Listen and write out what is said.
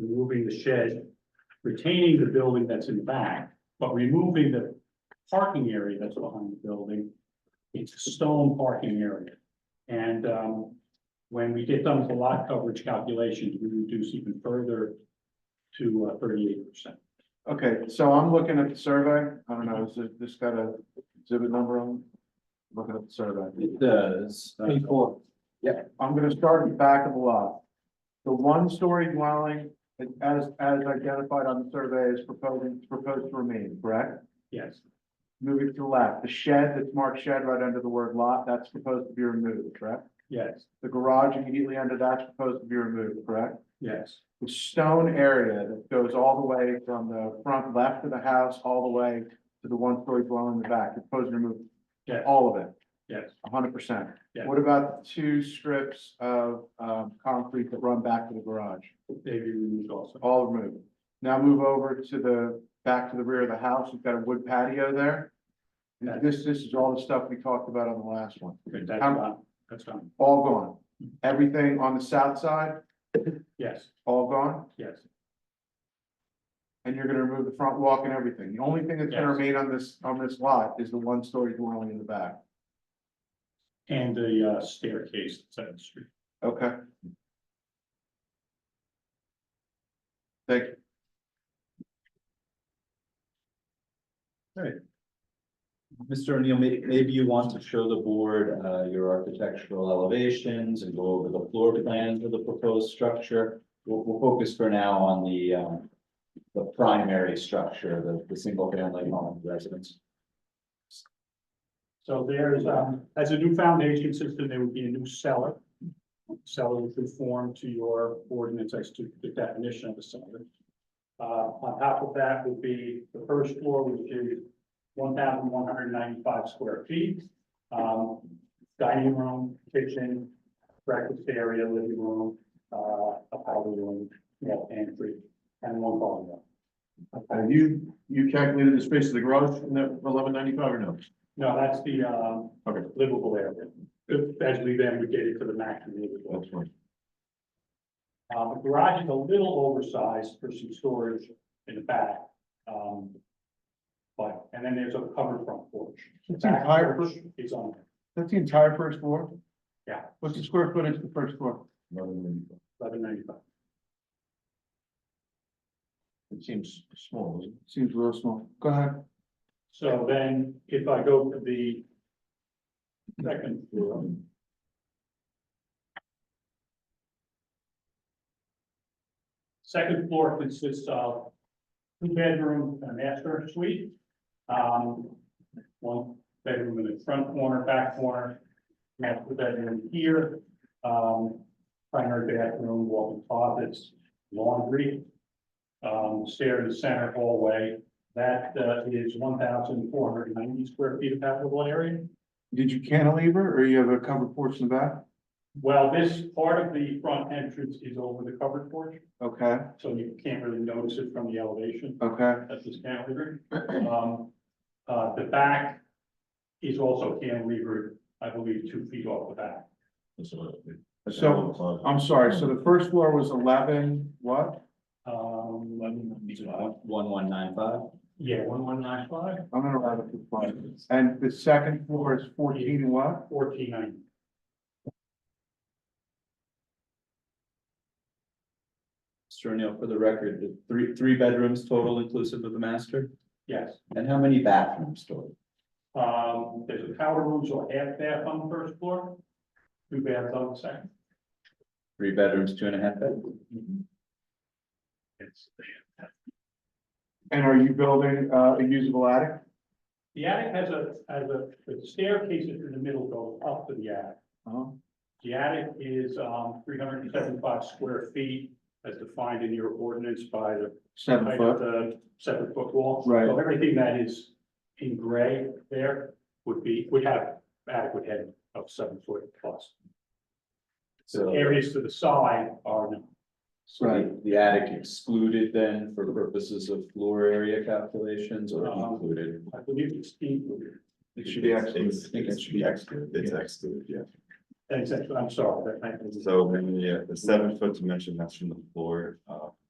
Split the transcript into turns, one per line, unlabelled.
removing the shed, retaining the building that's in back, but removing the parking area that's behind the building. It's a stone parking area. And, um, when we get done with the lot coverage calculations, we reduce even further to uh, thirty-eight percent.
Okay, so I'm looking at the survey. I don't know, is it, this got a exhibit number on? it? Looking at the survey.
It does.
Uh,
Page four. Yeah, I'm gonna start at the back of the lot. The one-story dwelling, as, as identified on the survey, is proposing, proposed to remain, correct?
Yes,
Moving to the left, the shed that's marked shed right under the word lot, that's proposed to be removed, correct?
yes,
The garage immediately under that's proposed to be removed, correct?
yes,
the stone area that goes all the way from the front left of the house, all the way to the one-story dwelling in the back, proposed to remove
yes,
all of it,
yes.
hundred percent.
Yeah.
What about the two strips of, um, concrete that run back to the garage?
They be removed also.
All removed. Now move over to the, back to the rear of the house, we've got a wood patio there.
Yeah.
This, this is all the stuff we talked about on the last one,
Good, that's
How-
done, that's done.
all gone.
Mm-hmm.
Everything on the south side,
Yes,
all gone?
yes,
And you're gonna remove the front walk and everything. The only thing that's gonna
Yes.
remain on this, on this lot is the one-story dwelling in the back.
and the uh, staircase that's on the street.
Okay? Thank you.
Mr. O'Neill, may, maybe you want to show the board, uh, your architectural elevations and go over the floor plans of the proposed structure. We'll, we'll focus for now on the, um, the primary structure, the, the single family home residence.
So there's, um, as a new foundation system, there would be a new cellar. Cellar would conform to your ordinance as to the definition of a cellar. Uh, on top of that would be the first floor, which is one thousand one hundred ninety-five square feet. Um, dining room, kitchen, breakfast area, living room, uh, a powder room, small pantry, and one bar.
Have you, you calculated the space of the garage in that eleven ninety-five or no?
No, that's the, um,
Okay.
livable area. Especially then we get it to the maximum livable.
That's fine.
Uh, the garage is a little oversized for some storage in the back. Um, but, and then there's a covered front porch. The
That's the
back
entire,
porch
fir-
is on
that's the entire first floor?
Yeah.
What's the square footage of the first floor?
eleven ninety-five.
It seems small, doesn't it? Seems real small. Go ahead.
So then if I go to the second floor. Second floor consists of two bedrooms and a master suite. Um, one bedroom in the front corner, back corner, master bedroom here. Um, primary bathroom, walk-in closets, laundry. Um, stair in the center hallway. That, uh, is one thousand four hundred ninety square feet of habitable area.
Did you cantilever or you have a covered porch in the back?
Well, this part of the front entrance is over the covered porch,
Okay,
so you can't really notice it from the elevation.
okay.
That's just cantilevered. Um, uh, the back is also cantilevered, I believe, two feet off the back.
So, I'm sorry, so the first floor was eleven, what?
Um, let me-
One, one, nine, five.
yeah, one, one, nine, five,
I'm gonna write it to five. And the second floor is fourteen and what?
fourteen ninety.
Mr. O'Neill, for the record, the three, three bedrooms total inclusive of the master?
Yes,
And how many bathrooms total?
um, there's a powder room, so half bath on the first floor, two baths on the second.
Three bedrooms, two and a half bedrooms?
It's
And are you building uh, a usable attic?
The attic has a, has a the staircase is in the middle goes up to the attic.
Uh-huh.
The attic is, um, three hundred and seventy-five square feet as defined in your ordinance by the
Seven
height of
foot.
the seven foot wall.
Right.
So everything that is in gray there would be, would have adequate head of seven foot plus.
So.
Areas to the side are, no.
So the- the attic excluded then for purposes of floor area calculations or
Uh-huh.
included?
I believe it's included.
It
should be excluded.
I think it should be excluded.
It's
yeah.
excluded, yeah.
That's, I'm sorry, that might be-
So when the, the seven foot dimension, that's from the floor, uh,